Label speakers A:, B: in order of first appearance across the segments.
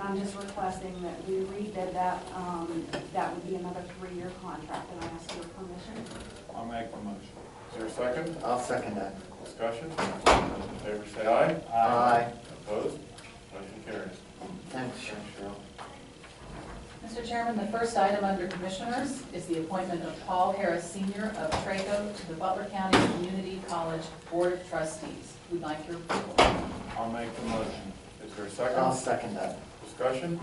A: I'm just requesting that we rebid that, um, that would be another three-year contract, and I ask your permission.
B: I'll make the motion. Is there a second?
C: I'll second that.
B: Discussion? Those in favor say aye.
C: Aye.
B: Opposed? Motion carries.
C: Thanks, Cheryl.
D: Mr. Chairman, the first item under Commissioners is the appointment of Paul Harris Sr. of Traco to the Butler County Community College Board of Trustees. We'd like your approval.
B: I'll make the motion. Is there a
C: I'll
B: second?
C: second that.
B: Discussion?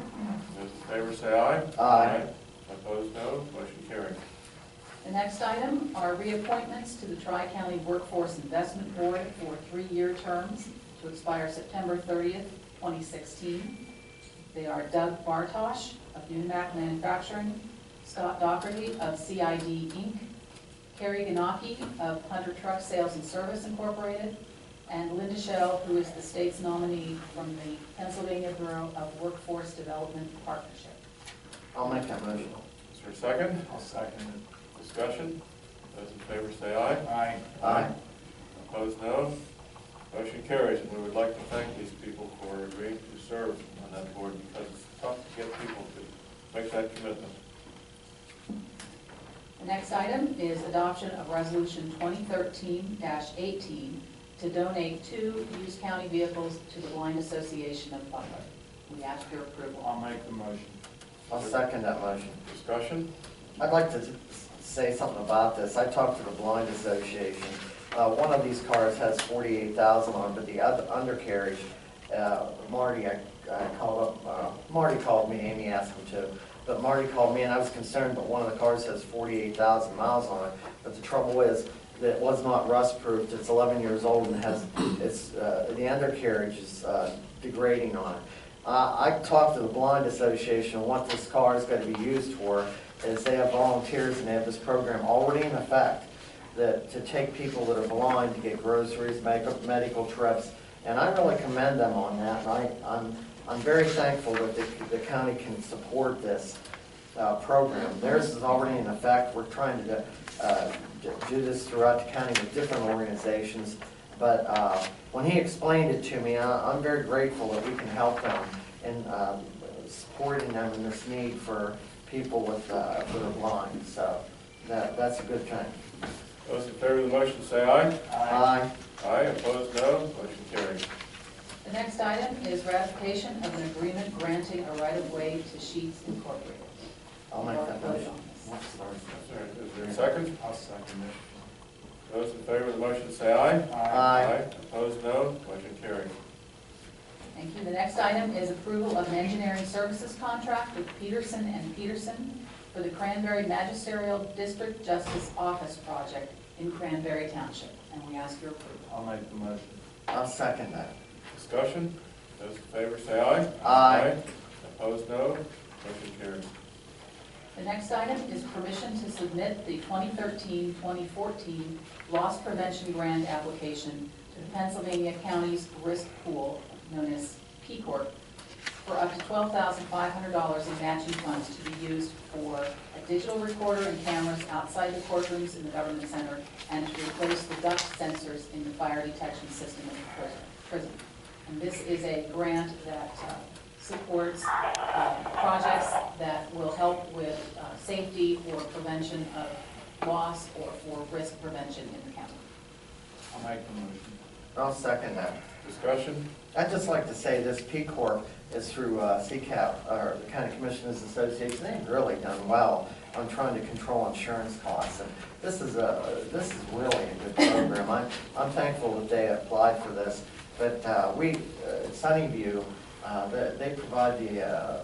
B: Those in favor say aye.
C: Aye.
B: Opposed, no. Motion carries.
D: The next item are reappointments to the Tri-County Workforce Investment Board for three-year terms to expire September 30th, 2016. They are Doug Bartosh of Newmack Manufacturing, Scott Dougherty of CID Inc., Carrie Ganaki of Hunter Truck Sales and Service Incorporated, and Linda Shell, who is the state's nominee from the Pennsylvania Bureau of Workforce Development Partnership.
C: I'll make that motion.
B: Is there a second?
E: I'll second
B: Discussion? Those in favor say aye.
E: it. Aye.
C: Aye.
B: Opposed, no. Motion carries, and we would like to thank these people for agreeing to serve on that board because it's tough to get people to make that commitment.
D: The next item is adoption of Resolution 2013-18 to donate two used county vehicles to the Blind Association of Butler. We ask your approval.
E: I'll make the motion.
C: I'll second that motion.
B: Discussion?
C: I'd like to s- say something about this. I talked to the Blind Association. Uh, one of these cars has forty-eight thousand on, it, but the other undercarriage, uh, Marty, I, I called up, uh, Marty called me, Amy asked him to. But Marty called me and I was concerned, but one of the cars has forty-eight thousand miles on it. But the trouble is, that it was not rust-proofed. It's eleven years old and has, it's, uh, the undercarriage is, uh, degrading on it. Uh, I talked to the Blind Association, and what this car is gonna be used for, is they have volunteers and they have this program already in effect that, to take people that are blind to get groceries, make- medical trips, and I really commend them on that. And I, I'm, I'm very thankful that the, the county can support this, uh, program. Theirs is already in effect. We're trying to, uh, do this throughout the county with different organizations. But uh, when he explained it to me, I- I'm very grateful that we can help them in um, supporting them in this need for people with, uh, that are blind. So that, that's a good thing.
B: Those in favor of the motion say aye.
C: Aye.
B: Aye, opposed, no. Motion carries.
D: The next item is ratification of an agreement granting a right-of-way to Sheets Incorporated.
C: I'll make that motion.
B: Is there- Is there a second?
E: I'll second it.
B: Those in favor of the motion say aye.
C: Aye.
B: Opposed, no. Motion carries.
D: Thank you. The next item is approval of an engineering services contract with Peterson and Peterson for the Cranberry Magisterial District Justice Office Project in Cranberry Township, and we ask your approval.
E: I'll make the motion.
C: I'll second that.
B: Discussion? Those in favor say aye.
C: Aye.
B: Opposed, no. Motion carries.
D: The next item is permission to submit the 2013-2014 loss prevention grant application to the Pennsylvania County's Risk Pool, known as P Corp, for up to $12,500 in matching funds to be used for a digital recorder and cameras outside the courtrooms in the government center, and to replace the duct sensors in the fire detection system in the prison- prison. And this is a grant that uh, supports uh, projects that will help with uh, safety or prevention of loss or for risk prevention in the county.
E: I'll make the motion.
C: I'll second that.
B: Discussion?
C: I'd just like to say this P Corp is through uh, CCAP, or the County Commissioners Association. They've really done well on trying to control insurance costs. And this is a, this is really a good program. I'm, I'm thankful that they applied for this. But uh, we, uh, Sunnyview, uh, they they provide the, uh,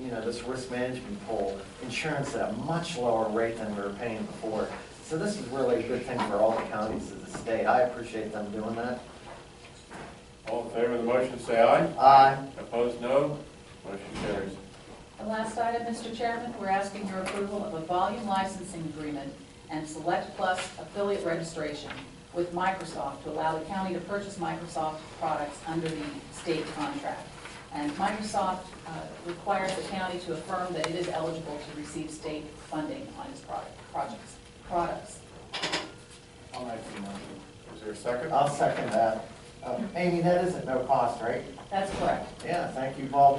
C: you know, this risk management pool insurance at a much lower rate than we were paying before. So this is really a good thing for all the counties of the state. I appreciate them doing that.
B: All in favor of the motion say aye.
C: Aye.
B: Opposed, no. Motion carries.
D: The last item, Mr. Chairman, we're asking your approval of a volume licensing agreement and Select Plus affiliate registration with Microsoft to allow the county to purchase Microsoft products under the state contract. And Microsoft uh, requires the county to affirm that it is eligible to receive state funding on its product, projects, products.
E: I'll make the motion.
B: Is there a second?
C: I'll second that. Uh, Amy, that isn't no cost, right?
D: That's correct.
C: Yeah, thank you, Paul.